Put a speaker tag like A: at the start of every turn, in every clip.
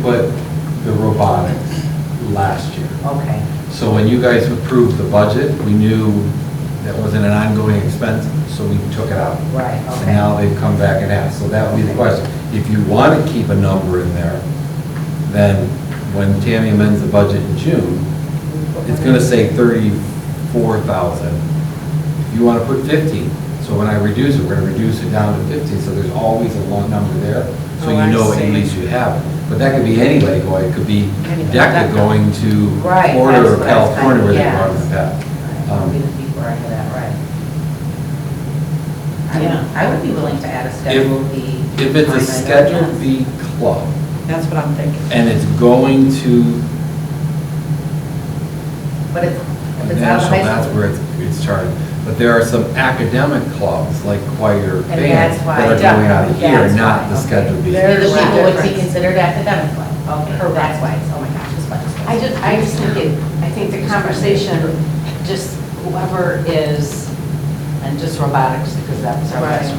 A: put the robotics last year.
B: Okay,
A: So when you guys approved the budget, we knew that wasn't an ongoing expense, so we took it out.
B: right,
A: And
B: okay.
A: now they've come back and asked, so that would be the question. If you want to keep a number in there, then when Tammy amends the budget in June, it's gonna say thirty-four thousand. You wanna put fifteen, so when I reduce it, we're gonna reduce it down to fifteen, so there's always a long number there, so
B: Oh,
A: you
B: I
A: know
B: see.
A: at least you have it. But that could be any leg going, it could be
B: Any leg,
A: DECA
B: DECA.
A: going to
B: Right,
A: Florida
B: that's
A: or
B: what I was
A: California where they
B: thinking,
A: brought it
B: yes.
A: back.
B: I'll be the
A: um,
B: people right for that, right? I would-
C: Yeah.
B: I would be willing to add a Schedule B.
A: If it's a
B: line item.
A: Schedule B club,
C: That's what I'm thinking.
A: and it's going to
B: But it's, if it's out of
A: national,
B: high
A: that's
B: school.
A: where it's, it's charged. But there are some academic clubs, like choir,
B: And that's
A: band,
B: why-
A: that are going out of here,
B: That's
A: not the
B: why,
A: Schedule B.
B: There-
D: They're the
B: There's a
D: people would be
B: difference.
D: considered academic club.
B: Okay, that's why, it's- oh my gosh, it's what.
D: I just, I just think it, I think the conversation, just whoever is, and just robotics, because that was our
B: Right.
D: question,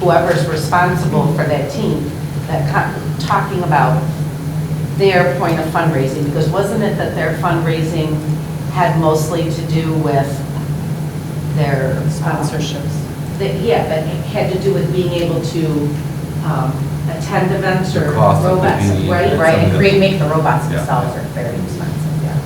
D: whoever's responsible for that team, that, co- talking about their point of fundraising, because wasn't it that their fundraising had mostly to do with their. um,
C: Sponsorships.
D: that, yeah, that had to do with being able to um, attend events
A: The
D: or
A: cost of the
D: robots,
A: VE,
D: right?
A: that's
B: Right, and
A: something.
B: create, make the robots
A: Yeah.
B: themselves are very expensive, yes.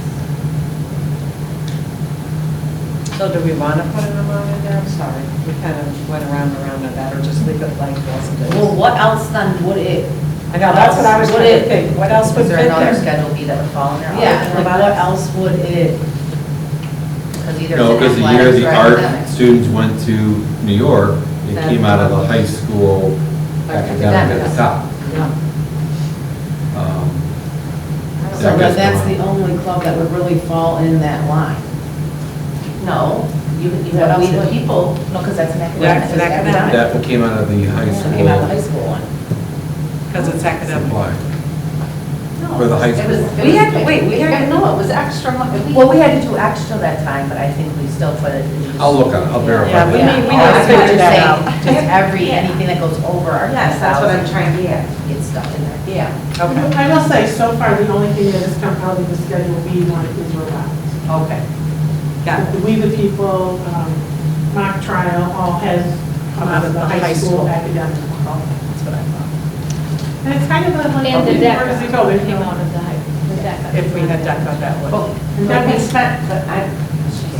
C: So do we want to put an amount in there? I'm sorry, we kind of went around and around on that, or just leave it blank as it is?
D: Well, what else then would it?
C: I know, that's what I was
D: what
C: trying
D: it-
C: to think, what else would
B: Is
C: fit
B: there another
C: there?
B: Schedule B that would fall in there? other
D: Yeah,
B: than
D: like what
B: robotics?
D: else would it,
B: Because either
A: No, because
B: it's in
A: the year
B: athletics
A: the
B: or
A: art
B: academics.
A: students went to New York, it
D: Then-
A: came out of the high school
D: Like
A: academic at the
D: academics.
A: top.
D: no,
A: Um,
B: So
A: that
E: So
A: gets
E: that- that's
A: going.
E: the only club that would really fall in that line.
D: no, you, you
B: What
D: have
B: else
D: we the
B: would-
D: people,
B: No, because that's an
C: Yeah, it's an
B: academic.
C: academic.
A: That one came out of the high
E: It came out of the high
A: school
E: school one.
C: Because it's academic.
A: supply.
D: no.
A: For the high
D: it
A: school.
D: was- it was-
C: We had to- wait, we had to-
D: No, it was extra money.
B: Well, we had to do extra that time, but I think we still put it. in.
A: I'll look on it, I'll verify
C: Yeah, we
A: that.
C: need, we
B: Oh,
C: need
B: I
C: to
B: see what
C: figure
B: you're
C: that
B: saying. Just
C: out.
B: every,
D: Yeah.
B: anything that goes over our
D: Yes, that's what I'm
B: 10,000
D: trying to get.
B: gets stuck in there.
D: Yeah,
C: Okay,
F: I will say, so far, the only thing that has come out of the Schedule B one is robotics.
B: Okay.
C: got it.
F: We the People, um, mock trial, all has come out of the high school
C: That's
F: academic.
C: what I thought.
F: And it's kind of a, like,
G: And the
F: where does it go? There's
G: Came
F: no-
G: out of the hype, the DECA.
C: If we had DECA, that would.
D: But
F: And
D: but
F: that
D: we
F: was-
D: spent, but I,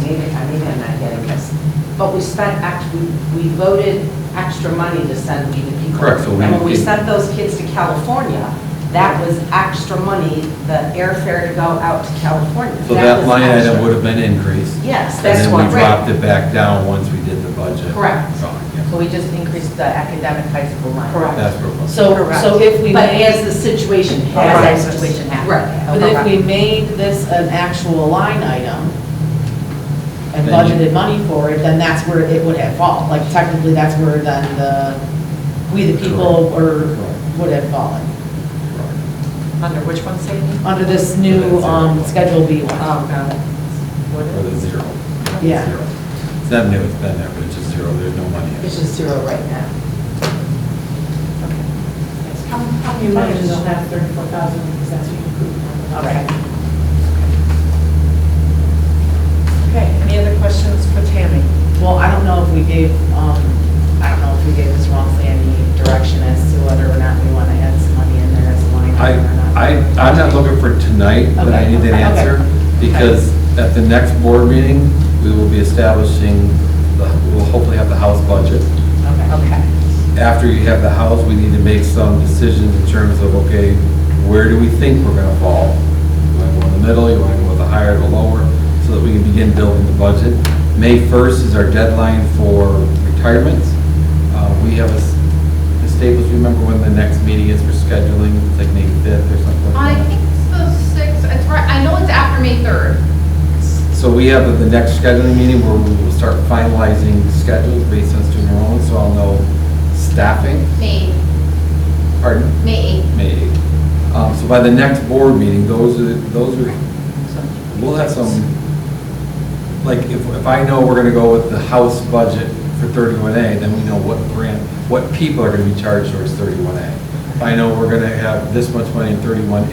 D: maybe, I maybe I'm not getting this, but we spent, act- we- we voted extra money to send We the People.
A: Correct, so we-
D: And when we sent those kids to California, that was extra money, the airfare to go out to California.
A: So that
D: was
A: line item
D: extra.
A: would have been increased.
D: Yes,
A: And
D: that's
A: then we
D: what,
A: dropped
D: right.
A: it back down once we did the budget.
D: Correct.
A: So, yeah,
B: So we just increased the academic high school line.
F: Correct.
A: That's where it was.
E: So, so if we
D: But
E: made,
D: as the situation
B: As
D: has.
B: that situation happens.
D: Right.
E: but if we made this an actual line item and
A: Then you-
E: budgeted money for it, then that's where it would have fallen. Like technically, that's where then the, we the people were, would have fallen,
C: Under which one, Sadie?
E: under this new, um, Schedule B one.
C: Oh, got
A: Or the
C: it.
A: zero.
E: Yeah.
A: Zero. It's not new, it's been there, but it's just zero, there's no money in it.
D: It's just zero right now.
F: How, how many months they'll have thirty-four thousand, because that's what you approved.
C: Okay. Okay, any other questions for Tammy?
E: Well, I don't know if we gave, um, I don't know if we gave Ms. Walmsley any direction as to whether or not we want to add some money in there as a line
A: I,
E: item or not.
A: I, I'm not looking for tonight, but I
E: Okay,
A: need that
E: okay.
A: answer, because at the next board meeting, we will be establishing, the we'll hopefully have the house budget.
E: Okay.
C: Okay,
A: After you have the house, we need to make some decisions in terms of, okay, where do we think we're gonna fall? You wanna go in the middle, you wanna go with the higher, the lower, so that we can begin building the budget. May first is our deadline for retirements. Uh, we have a, s- the Staples, you remember when the next meeting is for scheduling, it's like May fifth or something?
G: I
A: like that?
G: think it's the sixth, it's right, I know it's after May third.
A: So we have the next scheduling meeting where we will start finalizing schedules based on student enrollment, so I'll know staffing,
G: May,
A: pardon?
G: May eighth.
A: May 8th. Um, So by the next board meeting, those are, those are, we'll have some, like, if, if I know we're gonna go with the house budget for 31A, then we know what grant, what people are gonna be charged towards 31A. If I know we're gonna have this much money in 31A.